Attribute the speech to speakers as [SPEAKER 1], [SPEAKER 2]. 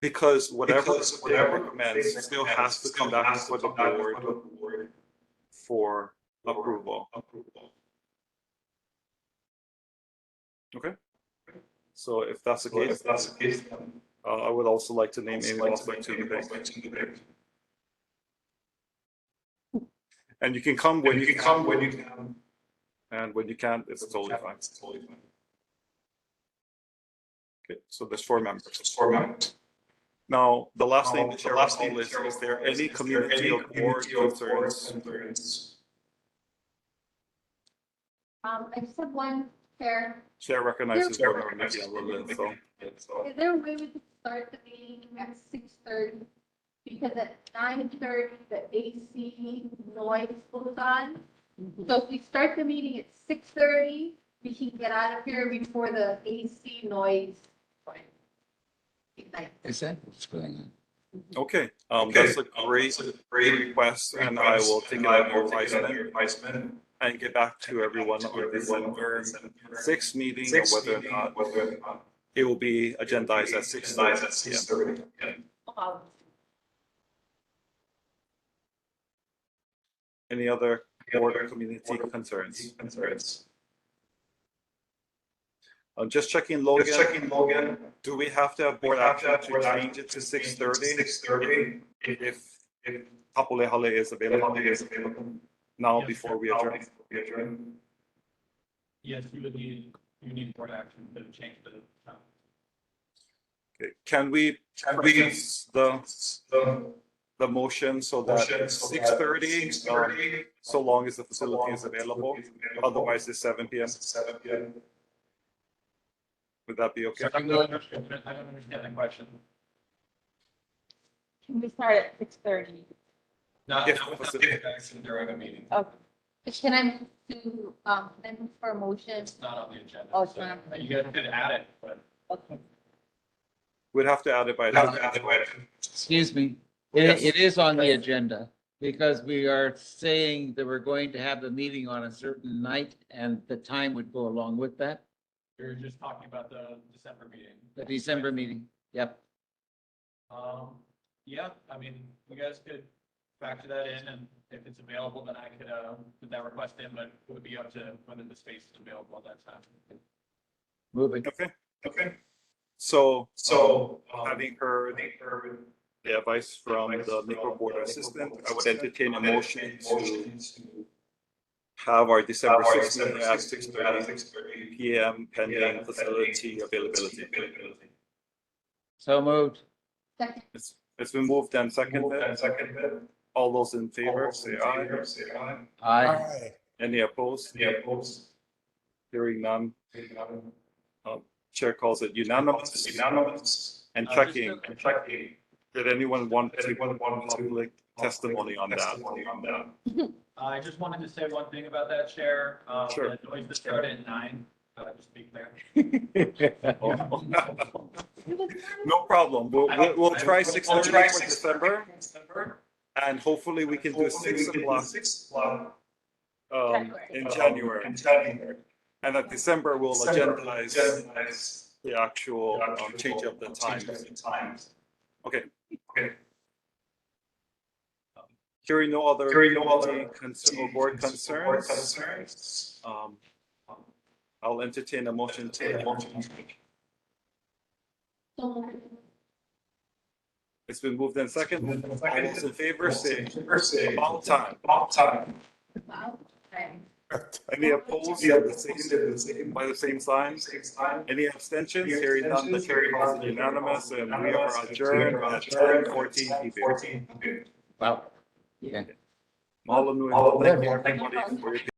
[SPEAKER 1] Because whatever
[SPEAKER 2] Um, Because
[SPEAKER 1] they
[SPEAKER 2] whatever
[SPEAKER 1] recommend
[SPEAKER 2] they
[SPEAKER 1] still
[SPEAKER 2] recommend
[SPEAKER 1] has to
[SPEAKER 2] still
[SPEAKER 1] come back
[SPEAKER 2] has
[SPEAKER 1] to the
[SPEAKER 2] come back
[SPEAKER 1] board
[SPEAKER 2] to the board
[SPEAKER 1] for
[SPEAKER 2] for
[SPEAKER 1] approval.
[SPEAKER 2] approval.
[SPEAKER 1] So if that's the
[SPEAKER 2] So if
[SPEAKER 1] case,
[SPEAKER 2] that's the case, then.
[SPEAKER 1] uh, I would also like to name Amy Mossberg to the
[SPEAKER 2] Amy
[SPEAKER 1] debate.
[SPEAKER 2] Mossberg to the debate.
[SPEAKER 1] And you can come
[SPEAKER 2] When
[SPEAKER 1] when
[SPEAKER 2] you can come, when you can.
[SPEAKER 1] and when you can't, it's totally fine.
[SPEAKER 2] It's totally fine.
[SPEAKER 1] Okay, so there's four members.
[SPEAKER 2] Just four members.
[SPEAKER 1] Now, the last name
[SPEAKER 2] Now,
[SPEAKER 1] the
[SPEAKER 2] the
[SPEAKER 1] chair
[SPEAKER 2] last
[SPEAKER 1] last
[SPEAKER 2] name
[SPEAKER 1] on list,
[SPEAKER 2] chair
[SPEAKER 1] is
[SPEAKER 2] of
[SPEAKER 1] there
[SPEAKER 2] list,
[SPEAKER 1] any
[SPEAKER 2] is there
[SPEAKER 1] community
[SPEAKER 2] any
[SPEAKER 1] of board
[SPEAKER 2] community of board
[SPEAKER 1] concerns?
[SPEAKER 2] concerns?
[SPEAKER 3] Um, I just have one, Chair.
[SPEAKER 1] Chair recognizes
[SPEAKER 2] Chair
[SPEAKER 1] board member Nikki
[SPEAKER 2] recognizes board member
[SPEAKER 1] Lillian, so.
[SPEAKER 2] So,
[SPEAKER 3] Is there a way we could start the meeting at six thirty? Because at nine thirty, the AC noise goes on.
[SPEAKER 4] Mm-hmm.
[SPEAKER 3] So if we start the meeting at six thirty, we can get out of here before the AC noise. ignites.
[SPEAKER 5] Is that what's going on?
[SPEAKER 1] Okay, um,
[SPEAKER 2] Okay,
[SPEAKER 1] that's a great
[SPEAKER 2] Great
[SPEAKER 1] request and I will take it
[SPEAKER 2] out
[SPEAKER 1] under advisement
[SPEAKER 2] your advisement.
[SPEAKER 1] and get back to everyone on this sixth meeting or whether or not it will be agendized at six thirty.
[SPEAKER 2] at six thirty.
[SPEAKER 3] Um,
[SPEAKER 1] Any other board or
[SPEAKER 2] Board
[SPEAKER 1] community
[SPEAKER 2] board
[SPEAKER 1] concerns?
[SPEAKER 2] Concerns.
[SPEAKER 1] I'm um, just checking
[SPEAKER 2] Just
[SPEAKER 1] Logan,
[SPEAKER 2] checking Logan.
[SPEAKER 1] do we have to have board action to change it to six thirty
[SPEAKER 2] Six thirty. If,
[SPEAKER 1] if
[SPEAKER 2] if
[SPEAKER 1] Tapule Hale is
[SPEAKER 2] the
[SPEAKER 1] available
[SPEAKER 2] holiday is available.
[SPEAKER 1] now before we
[SPEAKER 2] Now
[SPEAKER 1] adjourn?
[SPEAKER 2] before we adjourn.
[SPEAKER 6] Yes, you would need, you need board action to change the time.
[SPEAKER 1] Okay, Can we
[SPEAKER 2] Can we-
[SPEAKER 1] please the,
[SPEAKER 2] The
[SPEAKER 1] the motion so
[SPEAKER 2] motion.
[SPEAKER 1] that six thirty, um,
[SPEAKER 2] Six thirty.
[SPEAKER 1] so long as the facility is available? Otherwise, it's seven P M.
[SPEAKER 2] Seven P M.
[SPEAKER 1] Would that be okay?
[SPEAKER 6] I don't understand, I don't understand the question.
[SPEAKER 4] Can we start at six thirty?
[SPEAKER 6] Not,
[SPEAKER 1] If-
[SPEAKER 6] not without board action during a meeting,
[SPEAKER 4] Okay.
[SPEAKER 3] Can I do, um, then for a motion?
[SPEAKER 6] it's not on the agenda.
[SPEAKER 4] Oh, it's
[SPEAKER 6] so
[SPEAKER 4] not on the
[SPEAKER 6] You guys could add it, but
[SPEAKER 4] Okay.
[SPEAKER 1] We'd have to add it by.
[SPEAKER 5] Excuse me,
[SPEAKER 1] Yes.
[SPEAKER 5] it, it is on the agenda because we are saying that we're going to have the meeting on a certain night and the time would go along with that,
[SPEAKER 6] you're just talking about the December meeting.
[SPEAKER 5] the December meeting. Yep.
[SPEAKER 6] Um, yeah, I mean, you guys could factor that in and if it's available, then I could, uh, put that request in, but it would be up to whether the space is available at that time.
[SPEAKER 5] Moving.
[SPEAKER 1] Okay,
[SPEAKER 2] Okay,
[SPEAKER 1] so
[SPEAKER 2] so. um,
[SPEAKER 1] having heard
[SPEAKER 2] having heard
[SPEAKER 1] the advice from
[SPEAKER 2] advice
[SPEAKER 1] the
[SPEAKER 2] from
[SPEAKER 1] Nico
[SPEAKER 2] the
[SPEAKER 1] Board
[SPEAKER 2] Nico
[SPEAKER 1] Assistant,
[SPEAKER 2] Board
[SPEAKER 1] I would
[SPEAKER 2] Assistant,
[SPEAKER 1] entertain a
[SPEAKER 2] I would
[SPEAKER 1] motion to
[SPEAKER 2] motion to
[SPEAKER 1] have our
[SPEAKER 2] have
[SPEAKER 1] December
[SPEAKER 2] our
[SPEAKER 1] sixth meeting
[SPEAKER 2] December
[SPEAKER 1] at
[SPEAKER 2] 6th
[SPEAKER 1] six
[SPEAKER 2] at
[SPEAKER 1] thirty
[SPEAKER 2] 6:30
[SPEAKER 1] P M
[SPEAKER 2] PM
[SPEAKER 1] pending facility availability.
[SPEAKER 2] availability.
[SPEAKER 5] So moved.
[SPEAKER 3] Second,
[SPEAKER 1] It's, it's been moved and
[SPEAKER 2] Moved
[SPEAKER 1] seconded.
[SPEAKER 2] and seconded.
[SPEAKER 1] All those in favor,
[SPEAKER 2] All those in
[SPEAKER 1] say aye.
[SPEAKER 2] favor, Say aye.
[SPEAKER 5] Aye.
[SPEAKER 1] Any opposed?
[SPEAKER 2] Any opposed?
[SPEAKER 1] Hearing none,
[SPEAKER 2] Hearing none.
[SPEAKER 1] chair calls it
[SPEAKER 2] It's
[SPEAKER 1] unanimous.
[SPEAKER 2] Unanimous.
[SPEAKER 1] And
[SPEAKER 6] Uh, just
[SPEAKER 1] checking,
[SPEAKER 6] a-
[SPEAKER 2] And checking.
[SPEAKER 1] did anyone want
[SPEAKER 2] Did
[SPEAKER 1] to
[SPEAKER 2] anyone want to-
[SPEAKER 1] public testimony on that?
[SPEAKER 2] Testimony on that.
[SPEAKER 6] I just wanted to say one thing about that chair, uh,
[SPEAKER 1] Sure.
[SPEAKER 6] the noise that started at nine, uh, just to be clear.
[SPEAKER 1] No problem. We'll, we'll- we'll try six
[SPEAKER 2] We'll
[SPEAKER 1] thirty
[SPEAKER 2] try
[SPEAKER 1] for
[SPEAKER 2] 6:30
[SPEAKER 1] December
[SPEAKER 2] December.
[SPEAKER 1] and hopefully we can do
[SPEAKER 2] Hopefully we
[SPEAKER 1] six
[SPEAKER 2] can do
[SPEAKER 1] o'clock,
[SPEAKER 2] Six o'clock.
[SPEAKER 1] um, in
[SPEAKER 2] um,
[SPEAKER 1] January.
[SPEAKER 2] In January.
[SPEAKER 1] And at December, we'll
[SPEAKER 2] December,
[SPEAKER 1] agendize
[SPEAKER 2] agendize
[SPEAKER 1] the actual um,
[SPEAKER 2] actual
[SPEAKER 1] change of the time.
[SPEAKER 2] change of the times.
[SPEAKER 1] Okay.
[SPEAKER 2] Okay.
[SPEAKER 1] Hearing no other.
[SPEAKER 2] Hearing no other
[SPEAKER 1] Concern or board
[SPEAKER 2] Board
[SPEAKER 1] concerns,
[SPEAKER 2] concerns.
[SPEAKER 1] um, I'll entertain a motion
[SPEAKER 2] Take a
[SPEAKER 1] to,
[SPEAKER 2] motion.
[SPEAKER 3] so moved.
[SPEAKER 1] it's been moved and seconded. All those in favor, say
[SPEAKER 2] First say.
[SPEAKER 1] about time.
[SPEAKER 2] About time.
[SPEAKER 3] Wow. Okay.
[SPEAKER 1] Any opposed?
[SPEAKER 2] Yeah,
[SPEAKER 1] The same-
[SPEAKER 2] the same.
[SPEAKER 1] By the same sign?
[SPEAKER 2] Same time.
[SPEAKER 1] Any abstentions?
[SPEAKER 2] Any
[SPEAKER 1] Hearing none, the
[SPEAKER 2] abstentions?
[SPEAKER 1] chair calls it
[SPEAKER 2] Hearing none, the chair
[SPEAKER 1] unanimous
[SPEAKER 2] calls it
[SPEAKER 1] and we are
[SPEAKER 2] unanimous.
[SPEAKER 1] adjourned at ten fourteen PB.
[SPEAKER 2] Fourteen.
[SPEAKER 5] Wow. Yeah.
[SPEAKER 1] All of you.
[SPEAKER 2] All of you.
[SPEAKER 1] Thank you for your